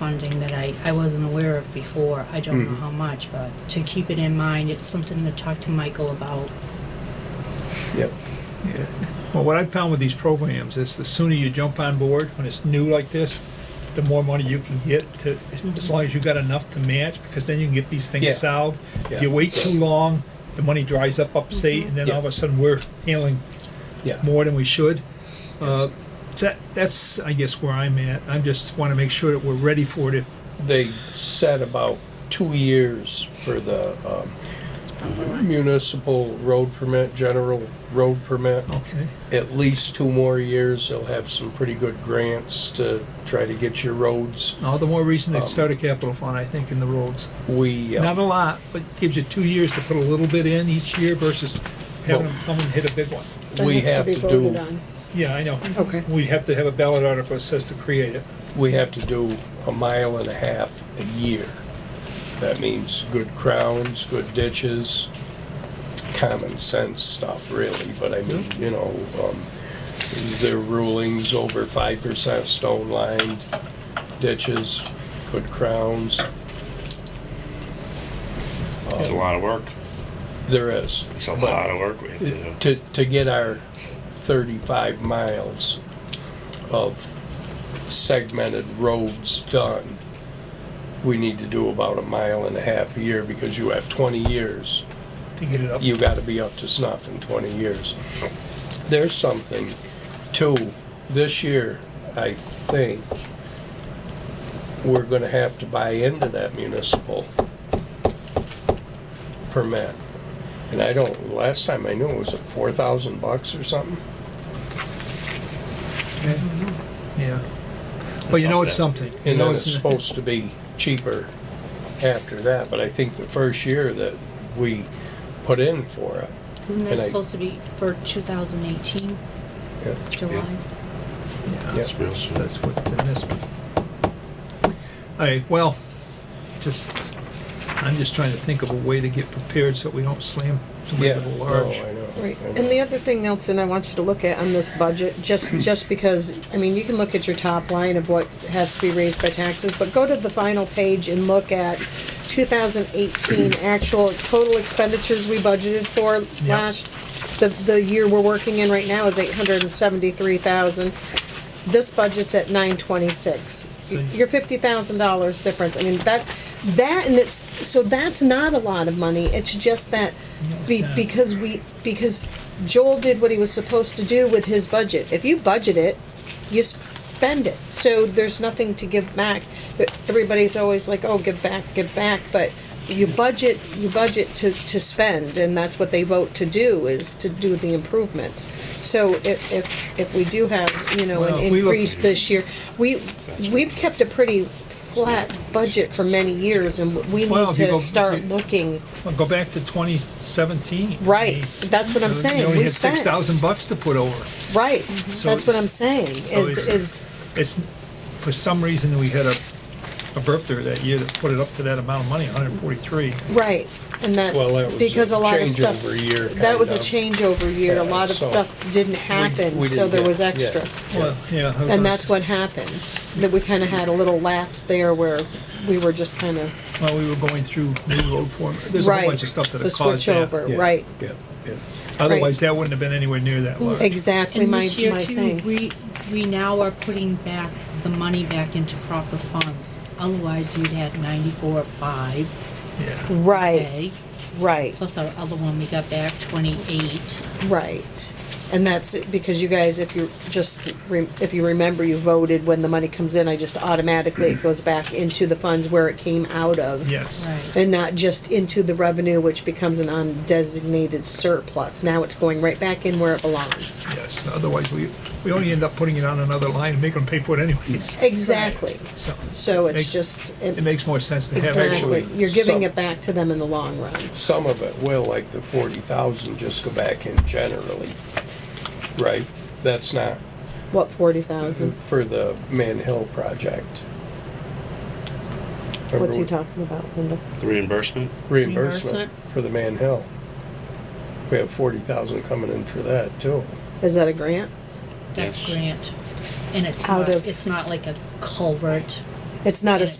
funding that I, I wasn't aware of before. I don't know Mm. how much, but to keep it in mind, it's something to talk to Michael about. Yep. Yeah. Well, what I found with these programs is the sooner you jump on board when it's new like this, the more money you can get to, as long as you got enough to match, because then you can get these Mm-hmm. Yeah. things solved. If you Yeah. Mm-hmm. wait too long, the money dries up upstate, and then all of a sudden, we're handling Yeah. more than we should. Uh, That, that's, I guess, where I'm at. I just want to make sure that we're ready for it. They said about two years for the um, municipal road permit, general road permit. Okay. At least two more years, they'll have some pretty good grants to try to get your roads. All the more reason to Um, start a capital fund, I think, in the roads. We, Not uh, a lot, but gives you two years to put a little bit in each year versus having them come and hit a big one. we have to do, Yeah, I know. Okay. We'd have to have a ballot article that says to create it. we have to do a mile and a half a year. That means good crowns, good ditches, common sense stuff, really, but I mean, you know, um, their rulings over five percent stone lined ditches, good crowns, It's a lot of work. there is. It's a But lot of work we have to do. To, to get our thirty-five miles of segmented roads done, we need to do about a mile and a half a year because you have twenty years. To get it up. you gotta be up to snuff in twenty years. There's something, too, this year, I think, we're gonna have to buy into that municipal permit. And I don't, last time I knew, it was it four thousand bucks or something? Okay. Yeah. But you know it's Something. something. You And know then it's supposed to be cheaper after that, but I think the first year that we put in for it, Isn't that And I- supposed to be for 2018, yeah, July? Yeah, It's real soon. That's what's in this one. All right, well, just, I'm just trying to think of a way to get prepared so we don't slam somebody yeah, Oh, with a no, large. I know. Right, I know. and the other thing, Nelson, I want you to look at on this budget, just, Hmm. just because, I mean, you can look at your top line of what has to be raised by taxes, but go to the final page and look at two thousand eighteen actual total expenditures we budgeted for Yeah. last, the, the year we're working in right now is eight hundred and seventy-three thousand. This budget's at nine twenty-six. So- Your fifty thousand dollars difference, I mean, that, that and it's, so that's not a lot of money, it's just that be, Yeah. because we, because Joel did what he was supposed to do with his budget. If you budget it, you spend it, so there's nothing to give back. But Everybody's always like, oh, give back, give back, but you budget, you budget to, to spend, and that's what they vote to do, is to do the improvements. So if, if, if we do have, you know, Well, an if we look- increase this year, we, we've kept a pretty flat budget for many years, and we Well, need if you go- to start if you- looking, Well, Go back to twenty seventeen. right, that's what I'm You saying, only we had six spent, thousand bucks to put over. right, So that's what it's- I'm saying, so is, it's- is, It's, for some reason, we had a, a burp there that year that put it up to that amount of money, hundred and forty-three. right, and Well, that was that, a because a lot of stuff. changeover year, That was a kind of. changeover year, a Yeah, lot of so stuff didn't happen, we so didn't there get- was yeah. extra. Well, yeah. I was And gonna that's s- what happened, that we kinda had a little lapse there where we were just kinda, Well, we were going through new road form, there's a right. whole bunch of stuff that the have caused that. switchover, Yeah. Right, Yeah, yeah. Otherwise, that wouldn't have been anywhere near that large. exactly And my, this year my too, saying, we, we now are putting back the money back into proper funds. Otherwise, you'd had 94, 5, Yeah. right, okay? right. Plus our other one, we got back 28. Right. And that's it, because you guys, if you just, re- if you remember, you voted when the money comes in, I just automatically, it goes back into the funds where it came out of. Yes. Right. And not just into the revenue, which becomes an undesignated surplus. Now it's going right back in where it belongs. Yes, otherwise, we, we only end up putting it on another line and making them pay for it anyways. Exactly. So, So it's Makes- just, it it- makes more sense to have actually, exactly, actually you're giving some- it back to them in the long run. Some of it will, like the forty thousand, just go back in generally, right? That's not What, forty thousand? for the Man Hill project. What's he talking about, Linda? The reimbursement? Reimbursement Reimbursement? for the Man Hill. We have forty thousand coming in for that too. Is that a grant? That's Yes. grant. And it's Out not, of- it's not like a culvert It's not a